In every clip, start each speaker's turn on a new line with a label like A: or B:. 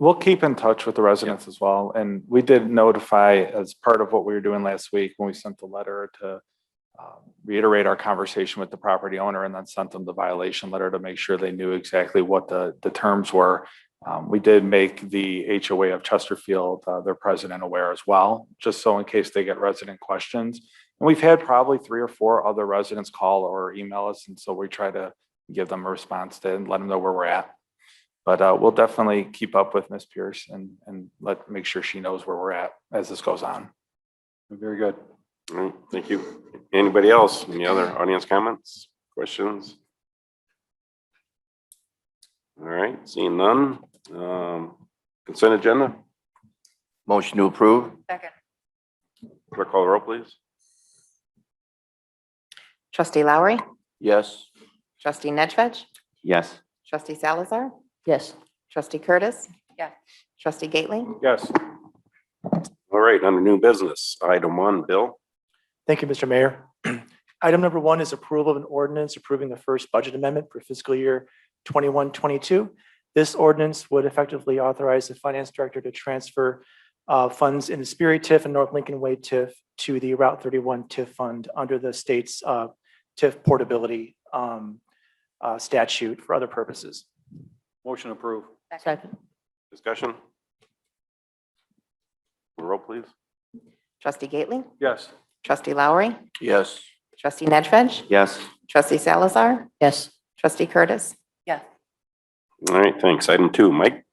A: We'll keep in touch with the residents as well. And we did notify as part of what we were doing last week when we sent the letter to um, reiterate our conversation with the property owner and then sent them the violation letter to make sure they knew exactly what the, the terms were. Um, we did make the HOA of Chesterfield, uh, their president aware as well, just so in case they get resident questions. And we've had probably three or four other residents call or email us. And so we try to give them a response to and let them know where we're at. But uh, we'll definitely keep up with Ms. Pierce and, and let, make sure she knows where we're at as this goes on. Very good.
B: All right, thank you. Anybody else? Any other audience comments, questions? All right, seeing none. Um, consent agenda,
C: Motion to approve?
D: Second.
B: clerk call the roll, please.
D: Trustee Lowry,
C: Yes.
D: trustee Nedved,
C: Yes.
D: trustee Salazar,
E: yes,
D: trustee Curtis. Yeah. Trustee Gately,
A: Yes.
B: All right, under new business, item one, Bill.
F: Thank you, Mr. Mayor. Item number one is approval of an ordinance approving the first budget amendment for fiscal year 21-22. This ordinance would effectively authorize the finance director to transfer uh, funds in the Sperry TIF and North Lincoln Way TIF to the Route thirty-one TIF fund under the state's uh, TIF portability um, uh, statute for other purposes.
G: Motion approved.
E: second,
B: Discussion? Roll, please.
D: trustee Gately,
G: Yes.
D: trustee Lowry,
C: Yes.
D: trustee Nedved,
C: Yes.
D: trustee Salazar,
E: yes,
D: trustee Curtis.
B: All right, thanks. Item two, Mike.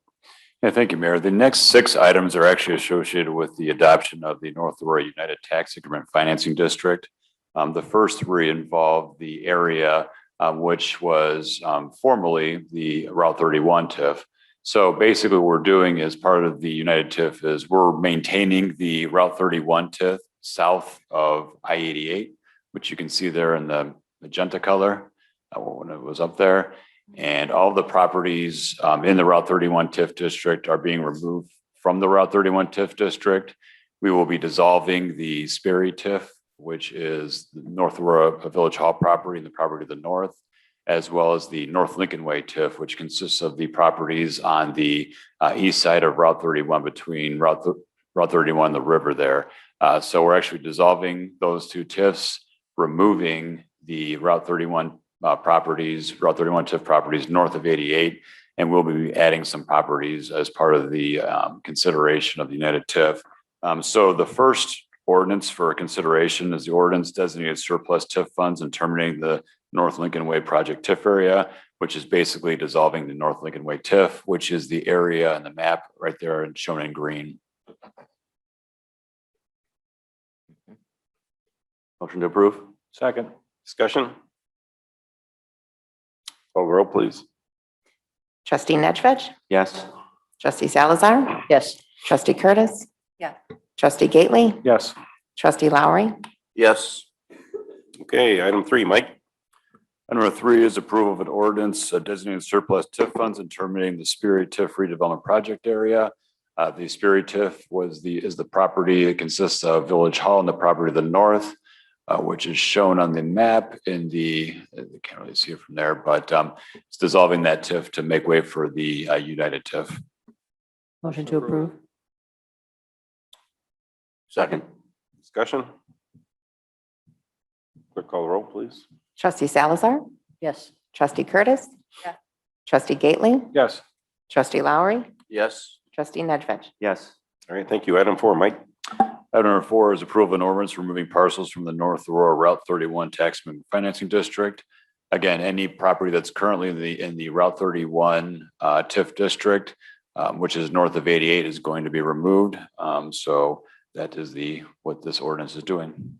G: Yeah, thank you, Mayor. The next six items are actually associated with the adoption of the North Aurora United Tax Increment Financing District. Um, the first three involve the area, um, which was, um, formerly the Route thirty-one TIF. So basically what we're doing as part of the United TIF is we're maintaining the Route thirty-one TIF south of I eighty-eight, which you can see there in the magenta color, uh, when it was up there. And all the properties um, in the Route 31 TIF district are being removed from the Route 31 TIF district. We will be dissolving the Sperry TIF, which is the North Aurora Village Hall property and the property to the north, as well as the North Lincoln Way TIF, which consists of the properties on the uh, east side of Route 31 between Route thir- Route 31 and the river there. Uh, So we're actually dissolving those two TIFs, removing the Route 31 uh, properties, Route 31 TIF properties north of 88. And we'll be adding some properties as part of the um, consideration of the United TIF. Um, So the first ordinance for consideration is the ordinance designated surplus TIF funds and terminating the North Lincoln Way Project TIF area, which is basically dissolving the North Lincoln Way TIF, which is the area and the map right there and shown in green.
C: Motion to approve?
A: Second.
B: Discussion? Call the roll, please.
D: Trustee Nedved,
C: Yes.
D: trustee Salazar,
E: yes,
D: trustee Curtis. Yeah. Trustee Gately,
A: Yes.
D: trustee Lowry,
C: Yes.
B: Okay, item three, Mike.
G: Item Number three is approval of an ordinance uh, designating surplus TIF funds and terminating the Sperry TIF redevelopment project area. Uh, the Sperry TIF was the, is the property, it consists of Village Hall and the property to the north, uh, which is shown on the map in the, I can't really see it from there, but, um, it's dissolving that TIF to make way for the, uh, United TIF.
E: motion to approve,
C: Second?
B: Discussion? Clerk call the roll, please.
D: trustee Salazar,
E: yes,
D: trustee Curtis. Yeah. Trustee Gately,
A: Yes.
D: trustee Lowry,
C: Yes.
D: trustee Nedved,
C: Yes.
B: All right, thank you. Item four, Mike.
G: Item number four is approve an ordinance removing parcels from the North Aurora Route thirty-one taxman financing district. Again, any property that's currently in the, in the Route thirty-one uh, TIF district, um, which is north of eighty-eight, is going to be removed. Um, So that is the, what this ordinance is doing.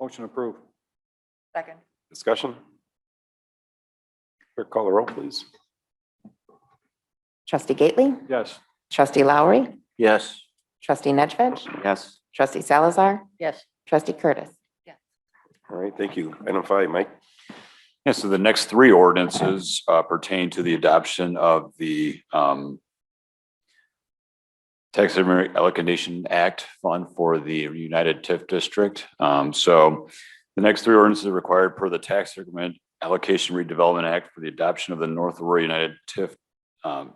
A: Motion approved.
D: Second.
B: Discussion? Clerk call the roll, please.
D: Trustee Gately,
A: Yes.
D: trustee Lowry,
C: Yes.
D: trustee Nedved,
C: Yes.
D: trustee Salazar,
E: yes,
D: trustee Curtis.
B: All right, thank you. Item five, Mike.
G: Yeah, so the next three ordinances uh, pertain to the adoption of the um, Tax Increment Allocation Act Fund for the United TIF District. Um, So the next three ordinances are required per the Tax Increment Allocation Redevelopment Act for the adoption of the North Aurora United TIF um,